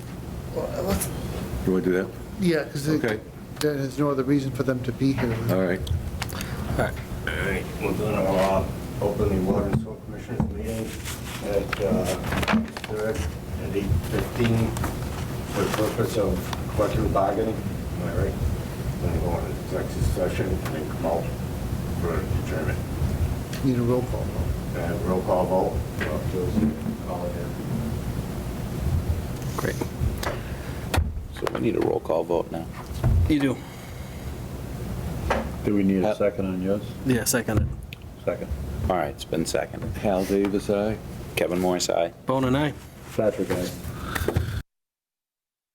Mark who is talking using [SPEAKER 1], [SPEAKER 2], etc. [SPEAKER 1] Well, let's-
[SPEAKER 2] You want to do that?
[SPEAKER 3] Yeah, because
[SPEAKER 2] Okay.
[SPEAKER 3] there's no other reason for them to be here.
[SPEAKER 2] All right.
[SPEAKER 4] All right, we're going to open the Water and Sewer Commissioners meeting at uh, third at 8:15 for the purpose of collective bargaining. Am I right? Then go on to executive session and then come out for adjournment.
[SPEAKER 3] Need a roll call.
[SPEAKER 4] And Roll call vote. Rob Gilson, call it in.
[SPEAKER 5] Great. So we need a roll call vote now.
[SPEAKER 6] You do.
[SPEAKER 7] Do we need
[SPEAKER 5] Uh,
[SPEAKER 7] a second on yours?
[SPEAKER 6] Yeah, second.
[SPEAKER 7] Second.
[SPEAKER 5] All right, it's been seconded.
[SPEAKER 2] Hal Davis, aye.
[SPEAKER 5] Kevin Morris, aye.
[SPEAKER 6] Bone and I.
[SPEAKER 7] Patrick, aye.